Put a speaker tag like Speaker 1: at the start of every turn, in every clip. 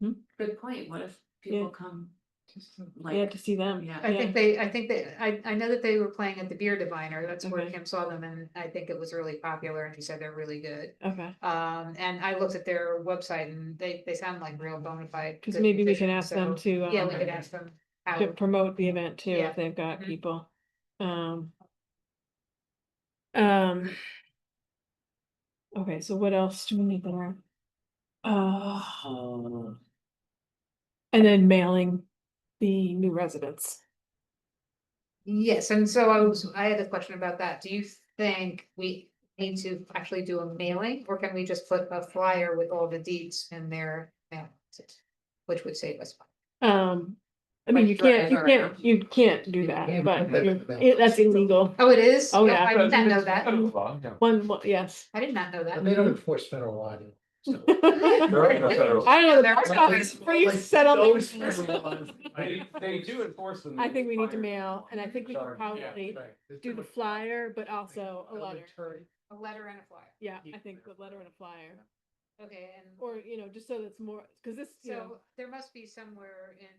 Speaker 1: Hmm?
Speaker 2: Good point, what if people come
Speaker 1: Yeah,
Speaker 2: like,
Speaker 1: to see them.
Speaker 2: yeah,
Speaker 3: I think they, I think they, I, I know that they were playing at the Beer Diviner, that's where
Speaker 1: Okay.
Speaker 3: Kim saw them, and I think it was really popular, and he said they're really good.
Speaker 1: Okay,
Speaker 3: Um, and I looked at their website and they, they sound like real bona fide.
Speaker 1: because
Speaker 3: good
Speaker 1: maybe we can
Speaker 3: musicians,
Speaker 1: ask them
Speaker 3: so-
Speaker 1: to,
Speaker 3: Yeah, we
Speaker 1: um,
Speaker 3: could ask them.
Speaker 1: to
Speaker 3: how-
Speaker 1: promote the event too,
Speaker 3: Yeah.
Speaker 1: if they've got
Speaker 3: Mhm.
Speaker 2: Mm-hmm.
Speaker 1: people. Um. Um. Okay, so what else do we need there? Uh. And then mailing the new residents.
Speaker 3: Yes, and so I was, I had a question about that. Do you think we need to actually do a mailing or can we just put a flyer with all the deeds in their mail? Which would save us. money.
Speaker 1: Um, I mean,
Speaker 2: Like
Speaker 1: you
Speaker 2: your
Speaker 1: can't, you
Speaker 2: other
Speaker 1: can't,
Speaker 2: app.
Speaker 1: you can't do
Speaker 2: You
Speaker 1: that,
Speaker 2: can't
Speaker 1: but
Speaker 4: do that.
Speaker 1: you- it- that's illegal.
Speaker 3: Oh, it is?
Speaker 1: Oh, yeah.
Speaker 3: I did not know that.
Speaker 1: One, one- yes.
Speaker 3: I did not know that.
Speaker 4: And they don't
Speaker 1: Mm-hmm.
Speaker 4: enforce federal law. do they? So-
Speaker 1: I don't know,
Speaker 3: There are
Speaker 1: the
Speaker 3: others.
Speaker 1: are you set on
Speaker 4: Those
Speaker 1: the-
Speaker 4: federal laws.
Speaker 5: They, they do enforce them.
Speaker 1: I think we need to
Speaker 5: Fire.
Speaker 1: mail, and I think we can probably
Speaker 4: Right. There's
Speaker 1: do
Speaker 4: too
Speaker 1: the
Speaker 4: much-
Speaker 1: flyer, but also a
Speaker 4: Other
Speaker 1: letter.
Speaker 4: attorney-
Speaker 3: A letter and a flyer.
Speaker 1: Yeah,
Speaker 4: You-
Speaker 1: I think the letter and a flyer,
Speaker 3: Okay, and.
Speaker 1: or, you know, just so that's more, because this, you know,
Speaker 3: So there must be somewhere in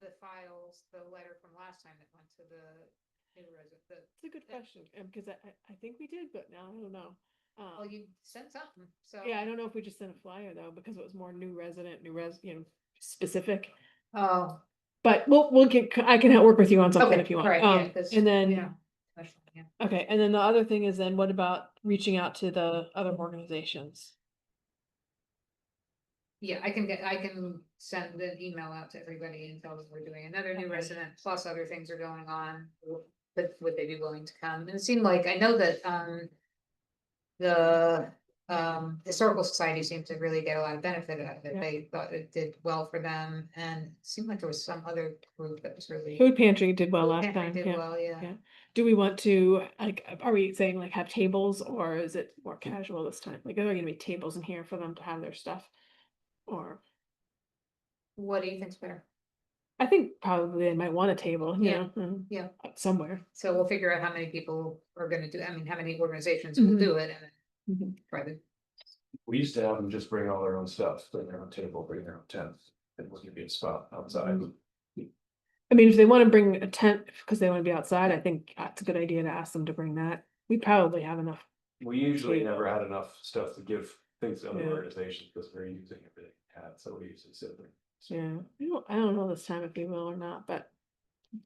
Speaker 3: the files, the letter from last time that went to the new resident, the,
Speaker 1: it's a good question, because I, I, I think we did, but now I don't know.
Speaker 3: well,
Speaker 1: Um,
Speaker 3: you sent something, so.
Speaker 1: yeah, I don't know if we just sent a flyer though, because it was more new resident, new res, you know, specific.
Speaker 3: Oh,
Speaker 1: But we'll, we'll get, I can work with you on something
Speaker 3: Okay,
Speaker 1: if you want.
Speaker 3: all right, yeah,
Speaker 1: Um,
Speaker 3: 'cause,
Speaker 1: and then.
Speaker 3: yeah. question, yeah.
Speaker 1: Okay, and then the other thing is then what about reaching out to the other organizations?
Speaker 3: Yeah, I can get, I can send an email out to everybody and tell them we're doing another new
Speaker 1: Okay.
Speaker 3: resident, plus other things are going on. But would they be willing to come? And it seemed like, I know that, um. The, um, historical society seemed to really get a lot of benefit out of it.
Speaker 1: Yeah.
Speaker 3: They thought it did well for them and it seemed like there was some other group that was really.
Speaker 1: Food pantry did well
Speaker 3: Food
Speaker 1: last
Speaker 3: pantry
Speaker 1: time,
Speaker 3: did
Speaker 1: yeah.
Speaker 3: well, yeah.
Speaker 1: yeah. Do we want to, like, are we saying like have tables or is it more casual this time? Like, are there gonna be tables in here for them to have their stuff? Or,
Speaker 3: What do you think's better?
Speaker 1: I think probably they might want a table, you
Speaker 3: Yeah,
Speaker 1: know, mm,
Speaker 3: yeah.
Speaker 1: uh, somewhere.
Speaker 3: So we'll figure out how many people are gonna do, I mean, how many organizations will
Speaker 1: Mhm.
Speaker 3: do it and then
Speaker 1: Mhm.
Speaker 3: try to
Speaker 5: We used to have them just bring all their own stuff, bring their own table, bring their own tent, and we'll give you a spot outside.
Speaker 1: Mm-hmm. I mean, if they wanna bring a tent, because they wanna be outside, I think that's a good idea to ask them to bring that. We probably have enough.
Speaker 5: We usually
Speaker 1: Sweet.
Speaker 5: never had enough stuff to give things to other
Speaker 1: Yeah.
Speaker 5: organizations because we're using everything we had, so we usually sit there.
Speaker 1: Yeah, I don't, I don't know this time if they will or not, but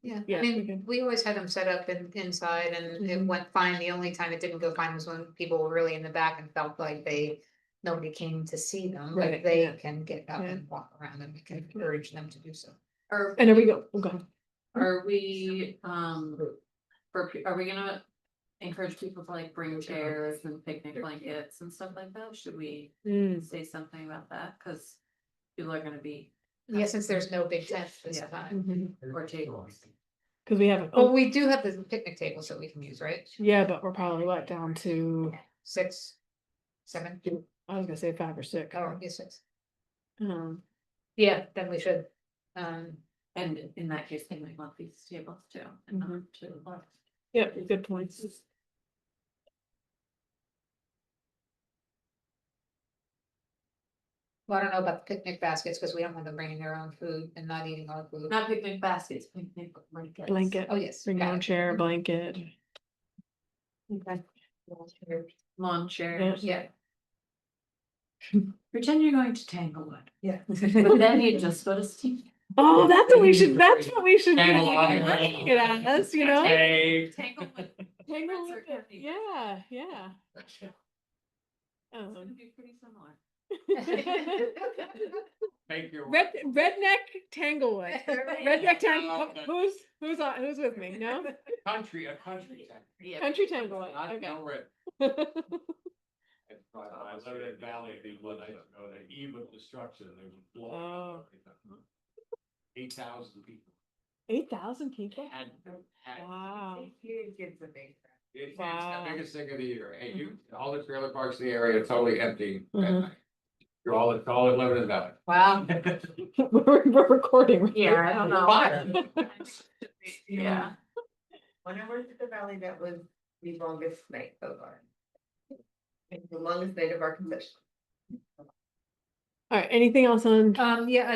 Speaker 3: Yeah,
Speaker 1: Yeah,
Speaker 3: I
Speaker 1: we
Speaker 3: mean,
Speaker 1: can-
Speaker 3: we always had them set up in, inside and it
Speaker 1: Mhm.
Speaker 3: went fine. The only time it didn't go fine was when people were really in the back and felt like they. Nobody came to see them,
Speaker 1: Right,
Speaker 3: but
Speaker 1: yeah.
Speaker 3: they can get up
Speaker 1: Yeah. Mm-hmm.
Speaker 3: and walk around and we can
Speaker 1: Yeah.
Speaker 3: encourage them to do so.
Speaker 2: are,
Speaker 1: and there we go, go ahead.
Speaker 2: are we, um, for, pe- are we gonna encourage people to like bring chairs and picnic blankets and stuff like that? Should we
Speaker 1: Mm.
Speaker 2: say something about that? Cause people are gonna be,
Speaker 3: Yeah, since there's no big tent this
Speaker 2: Yeah.
Speaker 3: time.
Speaker 1: Because
Speaker 2: or tables.
Speaker 1: Mm-hmm. we haven't,
Speaker 3: Well,
Speaker 1: oh,
Speaker 3: we do have the picnic tables that we can use, right?
Speaker 1: yeah, but we're probably what down to,
Speaker 3: Six, seven,
Speaker 1: I was gonna say five or six.
Speaker 3: oh, yeah, six.
Speaker 1: Um,
Speaker 3: Yeah, then we should. Um,
Speaker 2: And in that case, they might want these tables too. and
Speaker 1: Mm-hmm.
Speaker 2: not two.
Speaker 1: yeah, good points.
Speaker 3: well, I don't know about the picnic baskets because we don't want them bringing their own food and not eating our food.
Speaker 2: Not picnic baskets, picnic blankets.
Speaker 1: Blanket,
Speaker 3: Oh, yes.
Speaker 1: bring your
Speaker 3: got
Speaker 1: own
Speaker 3: it.
Speaker 1: chair, blanket.
Speaker 2: Okay. Lawn chairs.
Speaker 3: Yeah.
Speaker 2: Pretend you're going to Tanglewood,
Speaker 3: Yeah.
Speaker 2: but then you just go to Steve.
Speaker 1: Oh, that's what we should, that's what we should.
Speaker 4: Hang on.
Speaker 1: Get on us, you know?
Speaker 2: Tanglewood.
Speaker 1: Tangle
Speaker 2: Friends are
Speaker 1: with it.
Speaker 2: happy.
Speaker 1: Yeah, yeah.
Speaker 2: It's gonna
Speaker 1: Um,
Speaker 2: be pretty similar.
Speaker 4: Make your.
Speaker 1: Red, redneck Tanglewood, redneck Tanglewood,
Speaker 4: Okay.
Speaker 1: who's, who's on, who's with me, no?
Speaker 4: Country, a country. town.
Speaker 2: Yeah.
Speaker 1: Country Tanglewood,
Speaker 4: Not
Speaker 1: okay.
Speaker 4: no red.
Speaker 5: I was in Valley, they would, I don't know, the eve of destruction, they would
Speaker 1: Oh.
Speaker 5: blow.
Speaker 4: Eight thousand people.
Speaker 1: Eight thousand people?
Speaker 4: Had, had.
Speaker 1: Wow.
Speaker 4: It's it's the
Speaker 1: Wow.
Speaker 4: biggest thing of the year. And you, all the trailer parks in the area are totally empty. at
Speaker 1: Mhm.
Speaker 4: night. You're all, it's all in Lebanon Valley.
Speaker 3: Wow.
Speaker 1: We're, we're recording. right?
Speaker 2: Yeah, I don't
Speaker 4: Fire.
Speaker 2: know. Yeah,
Speaker 6: When I worked at the valley, that was the longest night so far. It's The longest night of our concession.
Speaker 1: All right, anything else on
Speaker 3: Um, yeah,